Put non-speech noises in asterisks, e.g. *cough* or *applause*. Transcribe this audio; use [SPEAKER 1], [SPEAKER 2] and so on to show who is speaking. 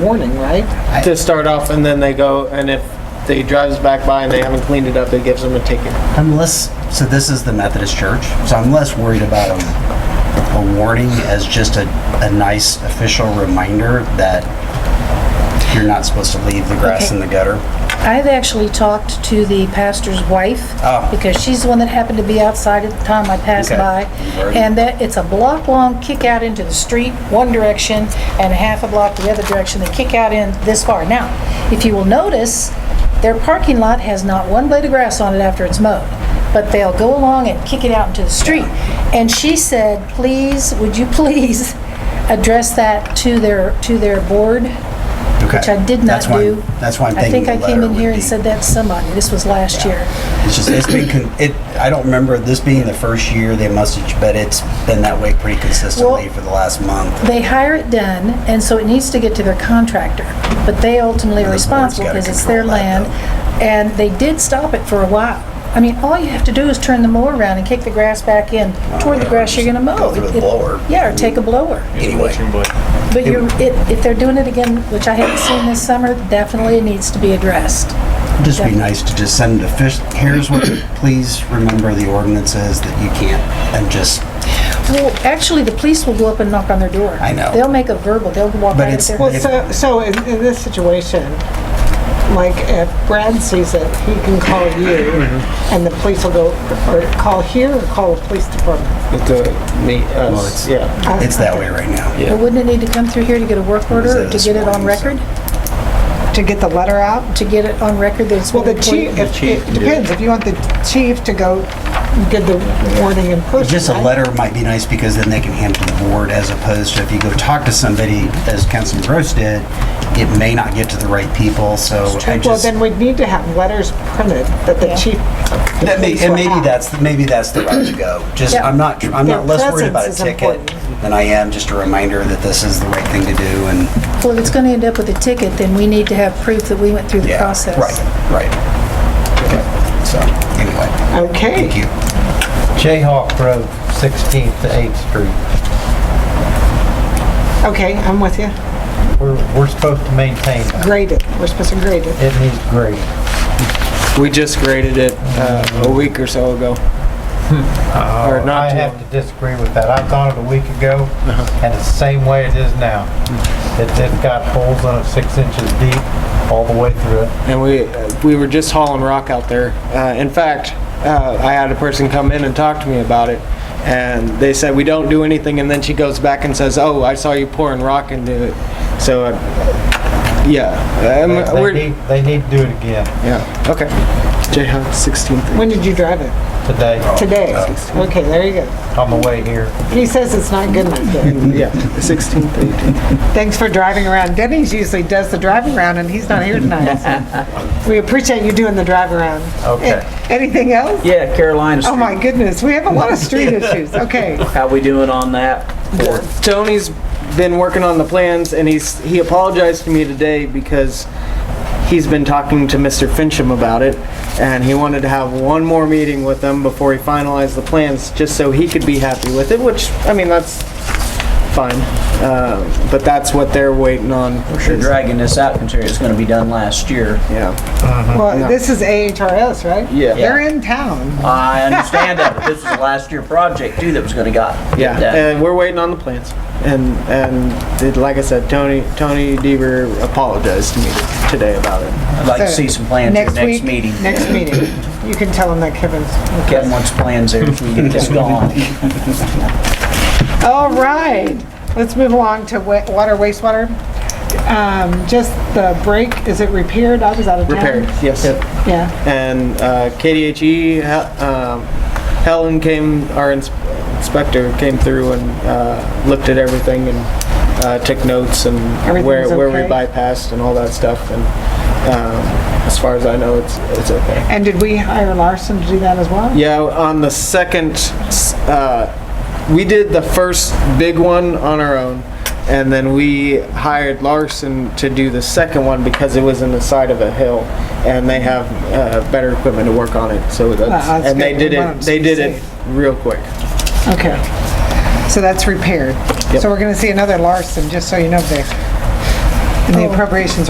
[SPEAKER 1] morning, right?
[SPEAKER 2] to start off, and then they go, and if they drives back by and they haven't cleaned it up, it gives them a ticket.
[SPEAKER 3] I'm less, so this is the Methodist Church, so I'm less worried about a, a warning as just a, a nice official reminder that you're not supposed to leave the grass in the gutter.
[SPEAKER 4] I've actually talked to the pastor's wife,
[SPEAKER 3] Oh.
[SPEAKER 4] because she's the one that happened to be outside at the time I passed
[SPEAKER 3] Okay.
[SPEAKER 4] by.
[SPEAKER 3] Very
[SPEAKER 4] And that, it's a block-long kick out into the street, one direction, and a half a block the other direction, they kick out in this far. Now, if you will notice, their parking lot has not one blade of grass on it after it's mowed, but they'll go along and kick it out into the street. And she said, please, would you please *laughs* address that to their, to their board?
[SPEAKER 3] Okay.
[SPEAKER 4] which I did not
[SPEAKER 3] That's why-
[SPEAKER 4] do.
[SPEAKER 3] That's why I'm
[SPEAKER 4] I
[SPEAKER 3] thinking
[SPEAKER 4] think
[SPEAKER 3] the
[SPEAKER 4] I came
[SPEAKER 3] letter
[SPEAKER 4] in
[SPEAKER 3] would
[SPEAKER 4] here and
[SPEAKER 3] be-
[SPEAKER 4] said that to somebody, this was last year.
[SPEAKER 3] It's just, it's been, con- it, I don't remember this being the first year they messaged, but it's been that way pretty consistently
[SPEAKER 4] Well-
[SPEAKER 3] for the last month.
[SPEAKER 4] They hire it done, and so it needs to get to their contractor, but they ultimately
[SPEAKER 3] And the
[SPEAKER 4] are
[SPEAKER 3] board's
[SPEAKER 4] responsible
[SPEAKER 3] gotta
[SPEAKER 4] because it's their
[SPEAKER 3] control that,
[SPEAKER 4] land. And they did stop it for a while. I mean, all you have to do is turn the mower around and kick the grass back in toward
[SPEAKER 3] Oh,
[SPEAKER 4] the
[SPEAKER 3] yeah,
[SPEAKER 4] grass you're
[SPEAKER 3] just
[SPEAKER 4] gonna mow.
[SPEAKER 3] go through the
[SPEAKER 4] It-
[SPEAKER 3] blower.
[SPEAKER 4] Yeah, or take a blower.
[SPEAKER 3] Anyway,
[SPEAKER 4] But you're, it- if they're doing it again, which I haven't seen this summer, definitely it needs to be addressed.
[SPEAKER 3] it'd just be nice to just send a fish, here's what, please remember the ordinances that you can't, and just
[SPEAKER 4] Well, actually, the police will go up and knock on their door.
[SPEAKER 3] I know.
[SPEAKER 4] They'll make a verbal, they'll walk
[SPEAKER 3] But
[SPEAKER 4] right up
[SPEAKER 3] it's-
[SPEAKER 4] there.
[SPEAKER 1] Well, so, so in, in this situation, like if Brad sees it, he can call you
[SPEAKER 3] Mm-hmm.
[SPEAKER 1] and the police will go, or call here or call the police department.
[SPEAKER 2] It's a, me,
[SPEAKER 3] it's-
[SPEAKER 2] us, yeah.
[SPEAKER 1] I-
[SPEAKER 3] It's that way right now.
[SPEAKER 4] But wouldn't it need to come through here to get a work order, or to
[SPEAKER 3] this
[SPEAKER 4] get it on
[SPEAKER 3] morning, so-
[SPEAKER 4] record?
[SPEAKER 1] To get the letter out?
[SPEAKER 4] To get it on record that it's...
[SPEAKER 1] Well, the
[SPEAKER 4] been
[SPEAKER 1] chief,
[SPEAKER 4] employed?
[SPEAKER 1] if- it depends. If you want the chief to go give the warning in person.
[SPEAKER 3] Just a
[SPEAKER 1] I-
[SPEAKER 3] letter might be nice because then they can hand it to the board as opposed to if you go talk to somebody, as Councilman Gross did, it may not get to the right people, so I
[SPEAKER 1] Well,
[SPEAKER 3] just.
[SPEAKER 1] then we'd need to have letters printed that the
[SPEAKER 4] Yeah.
[SPEAKER 1] chief.
[SPEAKER 3] That may,
[SPEAKER 1] police
[SPEAKER 3] and
[SPEAKER 1] will
[SPEAKER 3] maybe
[SPEAKER 1] have.
[SPEAKER 3] that's, maybe that's the route to go. Just,
[SPEAKER 4] Yeah.
[SPEAKER 3] I'm not, I'm
[SPEAKER 1] Their
[SPEAKER 3] not less worried about a
[SPEAKER 1] presence is
[SPEAKER 3] ticket
[SPEAKER 1] important.
[SPEAKER 3] than I am just a reminder that this is the right thing to do and,
[SPEAKER 4] Well, if it's going to end up with a ticket, then we need to have proof that we went through the
[SPEAKER 3] yeah.
[SPEAKER 4] process.
[SPEAKER 3] Right, right. Okay, so, anyway,
[SPEAKER 1] Okay.
[SPEAKER 3] thank you.
[SPEAKER 5] Jayhawk Road, 16th to 8th Street.
[SPEAKER 1] Okay, I'm with you.
[SPEAKER 5] We're, we're supposed to maintain that.
[SPEAKER 1] Graded. We're supposed to grade it.
[SPEAKER 5] It needs grade.
[SPEAKER 2] We just graded it uh, a week or so ago. Or
[SPEAKER 5] I
[SPEAKER 2] not too
[SPEAKER 5] have
[SPEAKER 2] long.
[SPEAKER 5] to disagree with that. I thought it a week ago, and it's the same way it is now. It, it's got holes in it six inches deep all the way through it.
[SPEAKER 2] and we uh, we were just hauling rock out there. Uh, in fact, uh, I had a person come in and talk to me about it, and they said we don't do anything. And then she goes back and says, "Oh, I saw you pouring rock into it." So, uh, yeah, um,
[SPEAKER 5] They- They
[SPEAKER 2] we're
[SPEAKER 5] need, they need to do it again
[SPEAKER 2] yeah okay. Jayhawk 16th.
[SPEAKER 1] When did you drive it?
[SPEAKER 5] today
[SPEAKER 1] Today.
[SPEAKER 3] Uh,
[SPEAKER 1] Okay, there you go.
[SPEAKER 5] on the way here.
[SPEAKER 1] He says it's not good enough. though.
[SPEAKER 2] Yeah, 16th, 18th.
[SPEAKER 1] Thanks for driving around. Denny's usually does the drive around and he's not here tonight. so We appreciate you doing the drive around.
[SPEAKER 5] Okay.
[SPEAKER 1] Anything else?
[SPEAKER 6] Yeah, Carolina
[SPEAKER 1] Oh my
[SPEAKER 6] Street.
[SPEAKER 1] goodness, we have a lot of street issues. Okay.
[SPEAKER 6] How we doing on that? Or-
[SPEAKER 2] Tony's been working on the plans, and he's he apologized to me today because he's been talking to Mr. Fincham about it, and he wanted to have one more meeting with them before he finalized the plans, just so he could be happy with it. Which I mean, that's fine, uh, but that's what they're waiting on.
[SPEAKER 6] You're dragging this out considering it's gonna be done last year.
[SPEAKER 2] Yeah,
[SPEAKER 1] Well, this is AHRS, right?
[SPEAKER 2] Yeah.
[SPEAKER 1] They're in town.
[SPEAKER 6] I understand that, but this is the last year project too that was gonna got.
[SPEAKER 2] yeah,
[SPEAKER 6] that.
[SPEAKER 2] and we're waiting on the plans. And and it, like I said, Tony Tony Deaver apologized to me today about it.
[SPEAKER 6] I'd like to see some plans at
[SPEAKER 1] Next
[SPEAKER 6] the
[SPEAKER 1] week,
[SPEAKER 6] next meeting.
[SPEAKER 1] next meeting. You can tell them that Kevin's
[SPEAKER 6] Kevin wants plans there so we can
[SPEAKER 1] *laughs*
[SPEAKER 6] get this going.
[SPEAKER 1] All right, let's move along to wa- water, wastewater. Um, Just the break, is it repaired? I was out of town.
[SPEAKER 2] Repaired, yes.
[SPEAKER 1] Yeah,
[SPEAKER 2] and uh, KDHE, Hel- um, Helen came, our ins- inspector came through and uh, looked at everything and uh, took notes and where,
[SPEAKER 1] Everything's
[SPEAKER 2] where we
[SPEAKER 1] okay?
[SPEAKER 2] bypassed and all that stuff. And um, as far as I know, it's, it's okay.
[SPEAKER 1] and did we hire Larson to do that as well?
[SPEAKER 2] Yeah, on the second, s- uh, we did the first big one on our own, and then we hired Larson to do the second one because it was in the side of a hill, and they have uh, better equipment to work on it. So that's,
[SPEAKER 1] Wow, Ah, that's
[SPEAKER 2] and they
[SPEAKER 1] good.
[SPEAKER 2] did
[SPEAKER 1] We want 'em
[SPEAKER 2] it. They
[SPEAKER 1] to
[SPEAKER 2] did it
[SPEAKER 1] succeed.
[SPEAKER 2] real quick.
[SPEAKER 1] Okay, so that's repaired.
[SPEAKER 2] Yep.
[SPEAKER 1] So we're going to see another Larson, just so you know, Vic. And the appropriations